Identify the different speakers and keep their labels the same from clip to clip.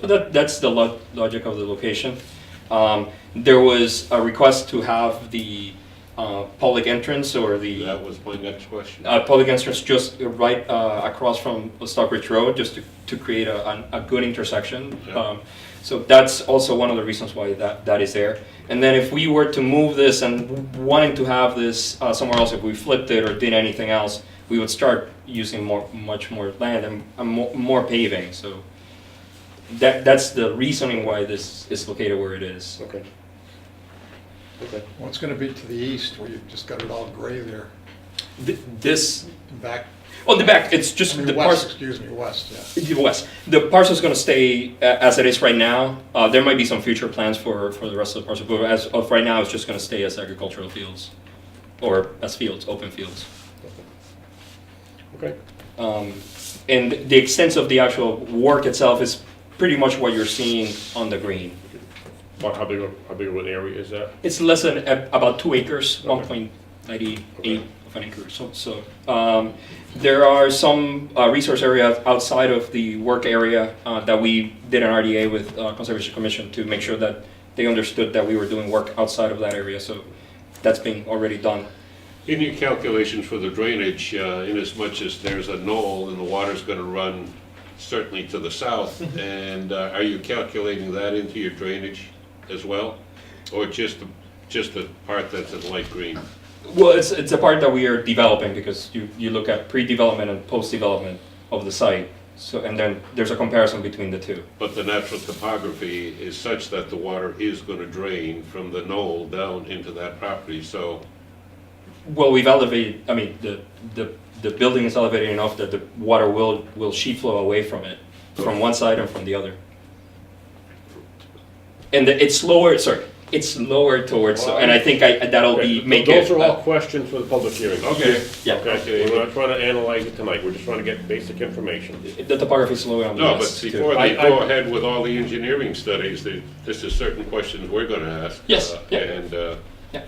Speaker 1: So that, that's the lo- logic of the location. Um, there was a request to have the, uh, public entrance or the.
Speaker 2: That was my next question.
Speaker 1: uh, public entrance just right uh, across from Stockbridge Road, just to, to create a, an- a good intersection.
Speaker 2: Yeah.
Speaker 1: Um, so that's also one of the reasons why that, that is there. And then if we were to move this and wanting to have this uh, somewhere else, if we flipped it or did anything else, we would start using more, much more land and, and more, more paving. So that, that's the reasoning why this is located where it is.
Speaker 2: Okay. Okay.
Speaker 3: Well, it's gonna be to the east, where you've just got it all gray there,
Speaker 1: Th- this,
Speaker 3: and back,
Speaker 1: on the back, it's just
Speaker 3: I
Speaker 1: the
Speaker 3: mean,
Speaker 1: parcel.
Speaker 3: west, excuse me, west, yeah.
Speaker 1: The West. The parcel's gonna stay a- as it is right now. Uh, there might be some future plans for, for the rest of the parcel, but as of right now, it's just gonna stay as agricultural fields. Or as fields, open fields.
Speaker 2: Okay.
Speaker 1: Um, and the extent of the actual work itself is pretty much what you're seeing on the green.
Speaker 2: What, how big, of- how big of an area is that?
Speaker 1: It's less than a- about two acres,
Speaker 2: Okay.
Speaker 1: one point ninety-eight
Speaker 2: Okay.
Speaker 1: of an acre. So, so um, there are some uh, resource areas outside of the work area uh, that we did an RDA with uh, Conservation Commission to make sure that they understood that we were doing work outside of that area. So that's being already done.
Speaker 2: In your calculations for the drainage, uh, inasmuch as there's a knoll and the water's gonna run certainly to the south, and uh, are you calculating that into your drainage as well? Or just, the just the part that's in light green?
Speaker 1: Well, it's it's a part that we are developing because you you look at pre-development and post-development of the site. So and then there's a comparison between the two.
Speaker 2: But the natural topography is such that the water is gonna drain from the knoll down into that property, so
Speaker 1: Well, we've elevated, I mean, the, the, the building is elevated enough that the water will, will sheet flow away from it, from one side and from the other. And the- it's lower, sorry, it's lower towards, and I think I, that'll be,
Speaker 4: Okay,
Speaker 1: make
Speaker 4: Those
Speaker 1: it.
Speaker 4: are all questions for the public hearing.
Speaker 2: Okay.
Speaker 1: Yeah.
Speaker 4: Okay, we're not trying to analyze it tonight, we're just trying to get basic information.
Speaker 1: The topography is lower on the
Speaker 2: No, but
Speaker 1: west too.
Speaker 2: before
Speaker 4: I-
Speaker 2: they
Speaker 4: I-
Speaker 2: go ahead with all the engineering studies, they- this is certain questions we're going to ask.
Speaker 1: Yes,
Speaker 2: uh,
Speaker 1: yeah.
Speaker 2: And, uh,
Speaker 1: Yeah.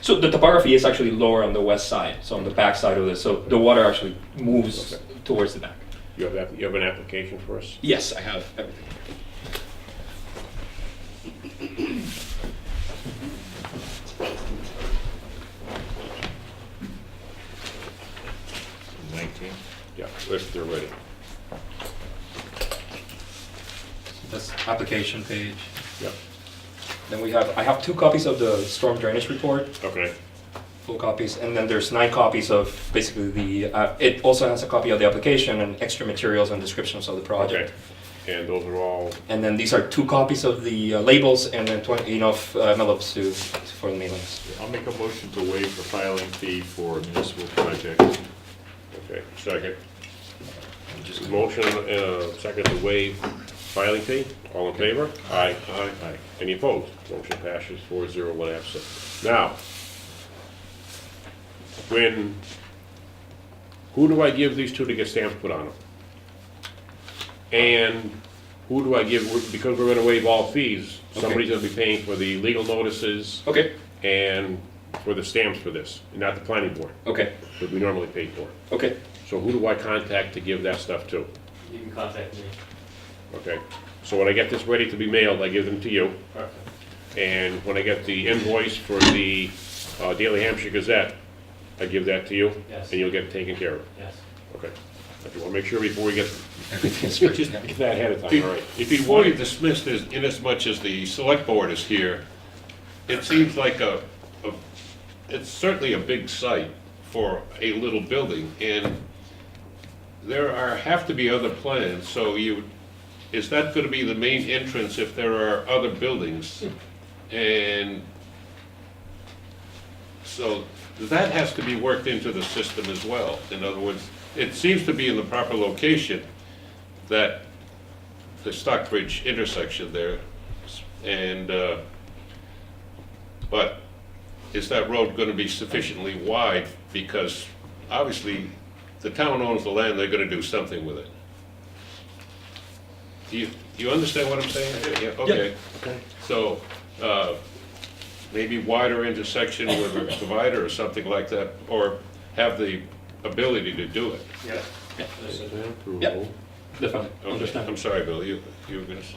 Speaker 1: So the topography is actually lower on the west side, so on the back side of this, so the water actually moves towards the back.
Speaker 4: You have, app- you have an application for us?
Speaker 1: Yes, I have everything.
Speaker 4: Yeah, if they're ready.
Speaker 1: That's application page.
Speaker 4: Yep,
Speaker 1: Then we have, I have two copies of the storm drainage report,
Speaker 4: okay.
Speaker 1: full copies, and then there's nine copies of basically the, uh, it also has a copy of the application and extra materials and descriptions of the
Speaker 4: Okay.
Speaker 1: project.
Speaker 4: And those are all,
Speaker 1: And then these are two copies of the uh, labels and then twenty enough uh, envelopes to, for the mailings.
Speaker 5: I'll make a motion to waive the filing fee for municipal projects.
Speaker 4: okay, second. Motion, uh, second to waive filing fee, all in favor? Aye. Aye. Aye. Any opposed? Motion passes four zero, one absent. Now, when, who do I give these to to get stamps put on them? And who do I give, because we're gonna waive all fees, somebody's gonna be paying for the legal notices
Speaker 1: Okay,
Speaker 4: and for the stamps for this, not the planning board,
Speaker 1: okay,
Speaker 4: that we normally pay for.
Speaker 1: okay.
Speaker 4: So who do I contact to give that stuff to?
Speaker 6: You can contact me.
Speaker 4: Okay, so when I get this ready to be mailed, I give them to you. And when I get the invoice for the uh, Daily Hampshire Gazette, I give that to you.
Speaker 6: Yes.
Speaker 4: And you'll get it taken care of.
Speaker 6: Yes.
Speaker 4: Okay. I just want to make sure before we get,
Speaker 1: Everything's
Speaker 4: just
Speaker 1: written.
Speaker 4: get that ahead of time, all right?
Speaker 2: if you want to dismiss this, inasmuch as the select board is here, it seems like a, a- it's certainly a big site for a little building, and there are, have to be other plans, so you, is that going to be the main entrance if there are other buildings? And So that has to be worked into the system as well. In other words, it seems to be in the proper location, that, the Stockbridge intersection there, and, uh, but is that road going to be sufficiently wide? Because obviously, the town owns the land, they're going to do something with it. Do you, do you understand what I'm saying? Yeah, okay. So, uh, maybe wider intersection with a divider or something like that, or have the ability to do it.
Speaker 6: Yeah.
Speaker 1: Yep. Definitely,
Speaker 2: Okay,
Speaker 1: understand.
Speaker 2: I'm sorry, Bill, you, you were gonna say?